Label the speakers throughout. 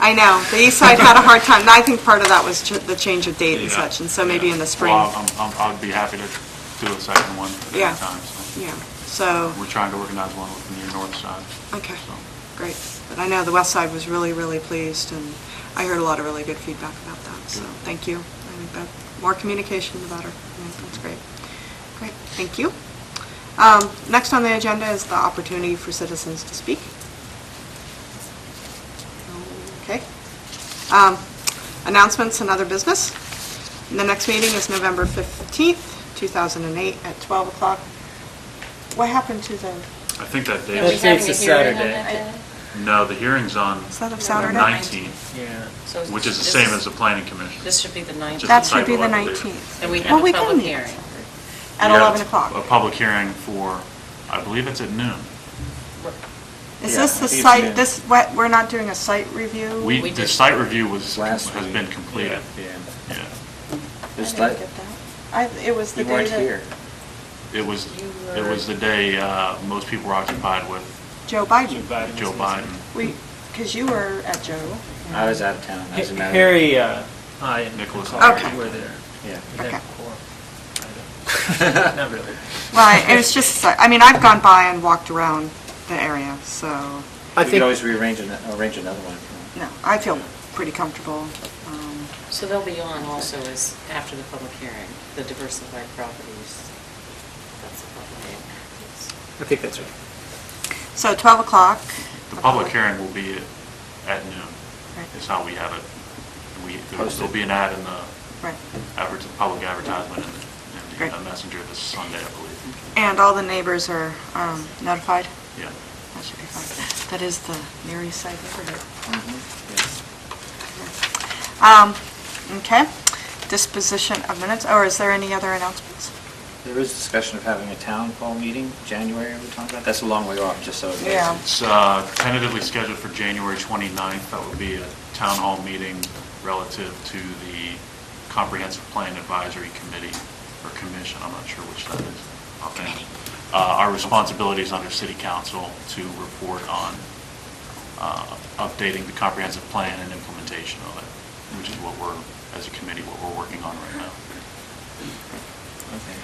Speaker 1: I know, the east side had a hard time, and I think part of that was ch- the change of date and
Speaker 2: Yeah.
Speaker 1: such, and so maybe in the spring.
Speaker 2: Well, I'm- I'm- I'd be happy to do a second one at
Speaker 1: Yeah.
Speaker 2: any time. so.
Speaker 1: Yeah, so,
Speaker 2: We're trying to organize one with the near north side.
Speaker 1: okay,
Speaker 2: so.
Speaker 1: great. But I know the west side was really, really pleased, and I heard a lot of really good feedback about that, so
Speaker 2: Good.
Speaker 1: thank you. I think that, more communication, the better. I think That's great. Great, thank you. Um, Next on the agenda is the opportunity for citizens to speak. Okay. Um, Announcements and other business. And The next meeting is November 15th, 2008, at 12 o'clock. What happened to the,
Speaker 2: I think that
Speaker 3: Are we
Speaker 2: day,
Speaker 4: That's-
Speaker 3: having a
Speaker 4: it's a
Speaker 3: hearing on
Speaker 4: Saturday.
Speaker 3: that day?
Speaker 2: no, the hearing's on
Speaker 1: is that of
Speaker 2: the
Speaker 1: Saturday?
Speaker 3: Ninth.
Speaker 2: 19th,
Speaker 4: Yeah.
Speaker 3: So
Speaker 2: which is the
Speaker 3: this
Speaker 2: same as the planning commission.
Speaker 3: This should be the ninth.
Speaker 2: Just
Speaker 1: That should be the
Speaker 2: typo, I believe.
Speaker 1: 19th.
Speaker 3: And we
Speaker 1: Well,
Speaker 3: have
Speaker 1: we
Speaker 3: a
Speaker 1: can
Speaker 3: public
Speaker 1: meet.
Speaker 3: hearing.
Speaker 1: At
Speaker 2: We have
Speaker 1: 11
Speaker 2: A
Speaker 1: o'clock.
Speaker 2: public hearing for, I believe it's at noon.
Speaker 1: Is
Speaker 4: Yeah,
Speaker 1: this the
Speaker 4: it's
Speaker 1: site,
Speaker 4: noon.
Speaker 1: this, what- we're not doing a site review?
Speaker 2: We,
Speaker 3: We
Speaker 2: the
Speaker 3: did-
Speaker 2: site review was, has
Speaker 4: Last
Speaker 2: been
Speaker 4: week.
Speaker 2: completed.
Speaker 4: Yeah.
Speaker 2: Yeah.
Speaker 1: I
Speaker 4: It's
Speaker 1: didn't
Speaker 4: like,
Speaker 1: get that. I, it was the
Speaker 4: you
Speaker 1: day that...
Speaker 4: weren't here.
Speaker 2: It was,
Speaker 3: You
Speaker 2: it
Speaker 3: were-
Speaker 2: was the day uh, most people were occupied with
Speaker 1: Joe Biden.
Speaker 2: Joe Biden.
Speaker 1: We, because you were at Joe.
Speaker 4: I was out of town. I was in Maryland.
Speaker 5: Harry, uh, I and
Speaker 2: Nicholas.
Speaker 5: Nicholas
Speaker 1: Okay.
Speaker 5: were there.
Speaker 4: Yeah.
Speaker 5: We had
Speaker 1: Okay.
Speaker 5: four. I don't- Not really.
Speaker 1: Right, it was just, a site- I mean, I've gone by and walked around the area, so,
Speaker 4: We could always rearrange, an- arrange another one. if you
Speaker 1: no, I feel pretty comfortable. Um,
Speaker 3: So they'll be on also is after the public hearing, the diversified properties. That's the public.
Speaker 5: I think that's right.
Speaker 1: So 12 o'clock.
Speaker 2: The public hearing will be at noon,
Speaker 1: Right,
Speaker 2: is how we have it. We, there'll
Speaker 4: Posted.
Speaker 2: be an ad in the
Speaker 1: Right.
Speaker 2: advert, public advertisement in the, in the
Speaker 1: Great.
Speaker 2: messenger this Sunday, I believe.
Speaker 1: And all the neighbors are um, notified?
Speaker 2: Yeah.
Speaker 1: That should be fine. That is the nearest side neighborhood.
Speaker 4: want. Mhm.
Speaker 1: Um, okay, disposition of minutes, or is there any other announcements?
Speaker 4: Yeah. There was discussion of having a town hall meeting, January, we talked about. That's a long way off, just so. it is.
Speaker 1: Yeah.
Speaker 2: It's uh, tentatively scheduled for January 29th. That would be a town hall meeting relative to the Comprehensive Plan Advisory Committee or Commission, I'm not sure which that is. Committee. Our responsibilities under city council to report on uh, updating the comprehensive plan and implementation of it, which is what we're, as a committee, what we're working on right now.
Speaker 4: Okay.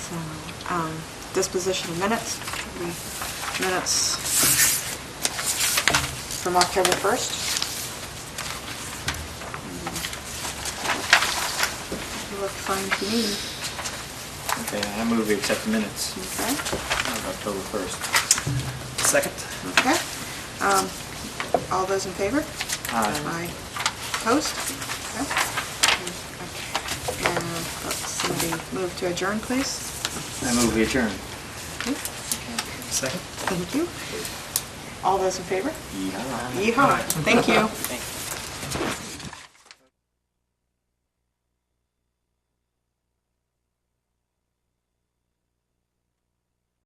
Speaker 1: So, um, disposition of minutes, We- minutes from October 1st. You Mm. look fine to me,
Speaker 4: Okay, I move we accept the minutes
Speaker 1: okay,
Speaker 4: of October 1st. Second.
Speaker 1: okay. Um, All those in favor?
Speaker 4: Aye.
Speaker 1: Opposed? Okay. Okay. And, uh, Somebody move to adjourn, please.
Speaker 4: I move we adjourn.
Speaker 1: Okay.
Speaker 4: Second.
Speaker 1: Thank you. All those in favor?
Speaker 4: Yeehaw.
Speaker 1: Yeehaw. Thank you.
Speaker 3: hearing. Thank you.